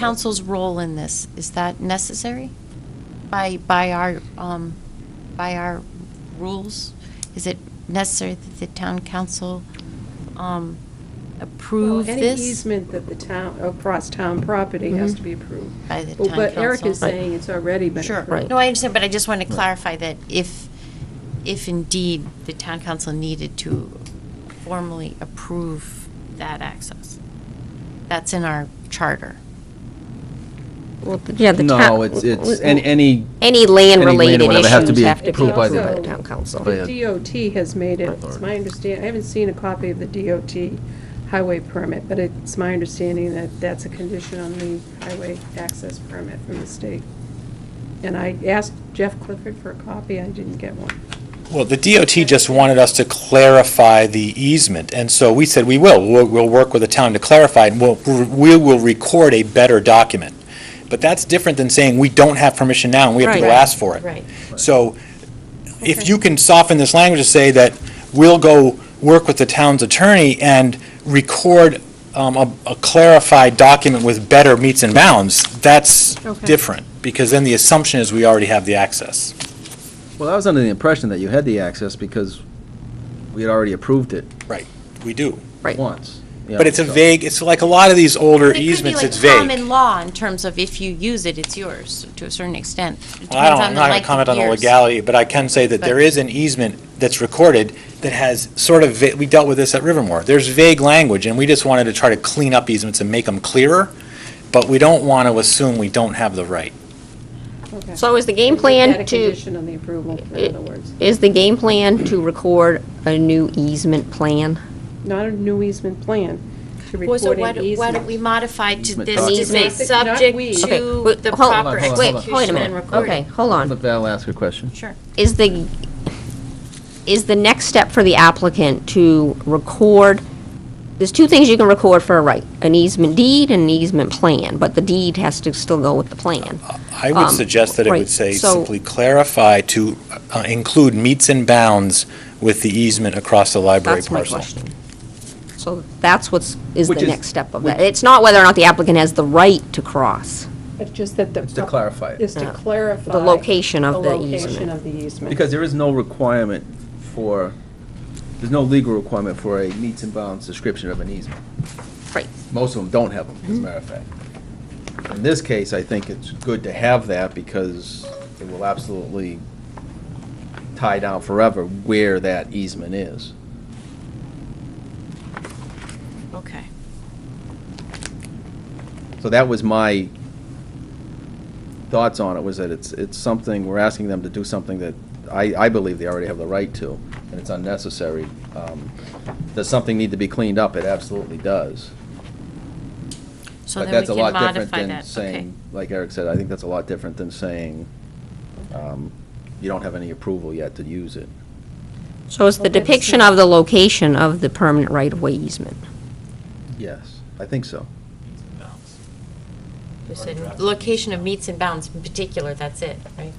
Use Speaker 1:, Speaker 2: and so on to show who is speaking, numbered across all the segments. Speaker 1: council's role in this? Is that necessary? By, by our, um, by our rules? Is it necessary that the town council, um, approve
Speaker 2: Well,
Speaker 1: this?
Speaker 2: Any easement that the town, across town property has
Speaker 1: Mhm.
Speaker 3: Mm-hmm.
Speaker 2: to be approved.
Speaker 1: By the
Speaker 2: Well,
Speaker 1: town
Speaker 2: But Eric
Speaker 1: council.
Speaker 2: is saying it's already been
Speaker 1: Sure.
Speaker 2: approved.
Speaker 1: No, I understand, but I just want to clarify that if, if indeed the town council needed to formally approve that access, that's in our charter.
Speaker 3: Well, th- yeah, the town.
Speaker 4: No, it's, it's, any, any.
Speaker 3: Any
Speaker 4: or
Speaker 3: land-related
Speaker 4: whatever
Speaker 3: issues
Speaker 4: have to be
Speaker 3: have to be
Speaker 4: approved by
Speaker 3: approved
Speaker 4: the-
Speaker 3: by the town council.
Speaker 4: by a-
Speaker 2: The DOT has made it, it's my understanding, I haven't seen a copy of the DOT highway permit, but it's my understanding that that's a condition on the highway access permit from the state. And I asked Jeff Clifford for a copy, I didn't get one.
Speaker 5: Well, the DOT just wanted us to clarify the easement, and so we said, we will, we'll, we'll work with the town to clarify, and we'll, we will record a better document. But that's different than saying, we don't have permission now, and we have to go
Speaker 3: Right.
Speaker 5: ask for it. So if you can soften this language to say that we'll go work with the town's attorney and record um, a a clarified document with better meets and bounds, that's
Speaker 2: Okay.
Speaker 5: different, because then the assumption is we already have the access.
Speaker 4: Well, I was under the impression that you had the access because we had already approved it
Speaker 5: We do.
Speaker 3: Right.
Speaker 4: once. you
Speaker 5: But
Speaker 4: know,
Speaker 5: it's a
Speaker 4: so-
Speaker 5: vague, it's like a lot of these older
Speaker 1: But it could be
Speaker 5: easements,
Speaker 1: like
Speaker 5: it's vague.
Speaker 1: common law in terms of if you use it, it's yours, to a certain extent. It
Speaker 5: Well,
Speaker 1: depends on
Speaker 5: I don't, I'm
Speaker 1: the
Speaker 5: not going
Speaker 1: length
Speaker 5: to
Speaker 1: of
Speaker 5: comment on the
Speaker 1: years.
Speaker 5: legality, but I can say that
Speaker 1: But-
Speaker 5: there is an e- easement that's recorded that has sort of, va- we dealt with this at Rivermore. There's vague language, and we just wanted to try to clean up easements and make them clearer, but we don't want to assume we don't have the right.
Speaker 2: Okay.
Speaker 3: So is the game
Speaker 2: Make that
Speaker 3: plan
Speaker 2: a
Speaker 3: to,
Speaker 2: condition on the approval, in other words.
Speaker 3: is the game plan to record a new easement plan?
Speaker 2: Not a new easement plan, to
Speaker 1: Well, so
Speaker 2: record
Speaker 1: why
Speaker 2: an
Speaker 1: don't, why don't we
Speaker 2: easement.
Speaker 1: modify to
Speaker 4: Easement
Speaker 1: this to say
Speaker 2: document. Not- not
Speaker 1: subject
Speaker 2: we.
Speaker 3: Okay,
Speaker 1: to
Speaker 3: wait,
Speaker 1: the
Speaker 3: hold on,
Speaker 1: proper
Speaker 4: hold on, hold on.
Speaker 3: Wait, wait a
Speaker 1: execution and
Speaker 3: minute,
Speaker 1: recording?
Speaker 3: okay, hold on.
Speaker 4: Let Val ask a question.
Speaker 1: Sure.
Speaker 3: Is the, is the next step for the applicant to record, there's two things you can record for a right, an easement deed and an easement plan, but the deed has to still go with the plan.
Speaker 4: Ah,
Speaker 5: I would
Speaker 3: Um,
Speaker 5: suggest that it
Speaker 3: right,
Speaker 5: would say
Speaker 3: so-
Speaker 5: simply clarify to uh, include meets and bounds with the easement across the library
Speaker 3: That's my
Speaker 5: parcel.
Speaker 3: question. So that's what's, is the
Speaker 4: Which is-
Speaker 3: next step of that. It's not whether or not the applicant has the right to cross.
Speaker 2: But just that the.
Speaker 4: Just to clarify it.
Speaker 2: Is to clarify.
Speaker 3: The location of the easement.
Speaker 2: location of the easement.
Speaker 4: Because there is no requirement for, there's no legal requirement for a meets and bounds description of an easement.
Speaker 3: Right. Mm-hmm.
Speaker 4: Most of them don't have them, as a matter of fact. In this case, I think it's good to have that because it will absolutely tie down forever where that easement is.
Speaker 1: Okay.
Speaker 4: So that was my thoughts on it, was that it's, it's something, we're asking them to do something that I, I believe they already have the right to, and it's unnecessary. Um, Does something need to be cleaned up? It absolutely does.
Speaker 1: So then
Speaker 4: But
Speaker 1: we
Speaker 4: that's a
Speaker 1: can
Speaker 4: lot different
Speaker 1: modify
Speaker 4: than
Speaker 1: that, okay.
Speaker 4: saying, like Eric said, I think that's a lot different than saying, um, you don't have any approval yet to use it.
Speaker 3: So it's the
Speaker 2: Okay, so-
Speaker 3: depiction of the location of the permanent right-of-way easement.
Speaker 4: Yes, I think so.
Speaker 1: You said location of meets and bounds in particular, that's it, right?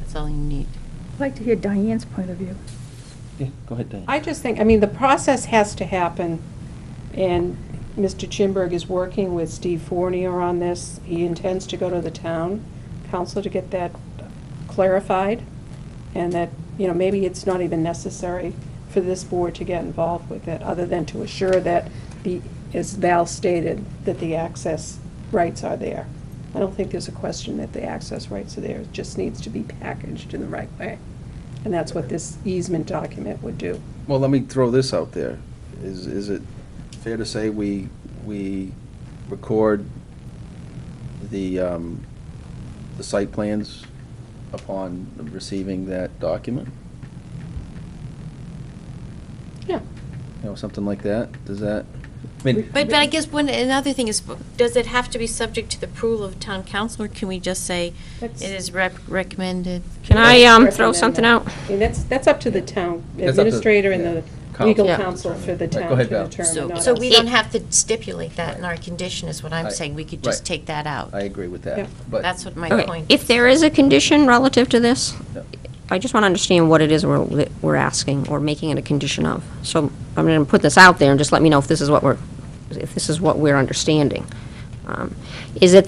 Speaker 1: That's all you need.
Speaker 6: I'd like to hear Diane's point of view.
Speaker 4: Yeah, go ahead, Dan.
Speaker 2: I just think, I mean, the process has to happen, and Mr. Chimberg is working with Steve Fournier on this. He intends to go to the town council to get that clarified, and that, you know, maybe it's not even necessary for this board to get involved with it, other than to assure that the, as Val stated, that the access rights are there. I don't think there's a question that the access rights are there, it just needs to be packaged in the right way. And that's what this easement document would do.
Speaker 4: Well, let me throw this out there. Is, is it fair to say we, we record the, um, the site plans upon receiving that document?
Speaker 2: Yeah.
Speaker 4: You know, something like that? Does that, I mean,
Speaker 1: But, but I guess one, another thing is, does it have to be subject to the approval of town council, or can we just say it
Speaker 2: That's-
Speaker 1: is rep- recommended?
Speaker 3: Can I um, throw something out?
Speaker 2: I mean, that's, that's up to the town
Speaker 4: That's up to-
Speaker 2: administrator and
Speaker 4: yeah.
Speaker 2: the legal
Speaker 3: Council.
Speaker 2: counsel for the
Speaker 4: Right, go
Speaker 2: town
Speaker 4: ahead,
Speaker 2: to
Speaker 4: Val.
Speaker 2: determine,
Speaker 1: So,
Speaker 2: not
Speaker 1: so
Speaker 2: us.
Speaker 1: we don't have to stipulate that in our condition, is what I'm
Speaker 4: Right.
Speaker 1: saying. We could just
Speaker 4: Right.
Speaker 1: take that out.
Speaker 4: I agree with
Speaker 2: Yeah.
Speaker 4: that, but.
Speaker 1: That's what my
Speaker 3: Okay,
Speaker 1: point is.
Speaker 3: If there is a condition relative to this,
Speaker 4: Yeah.
Speaker 3: I just want to understand what it is we're, that we're asking or making it a condition of. So I'm going to put this out there and just let me know if this is what we're, if this is what we're understanding. Um, Is it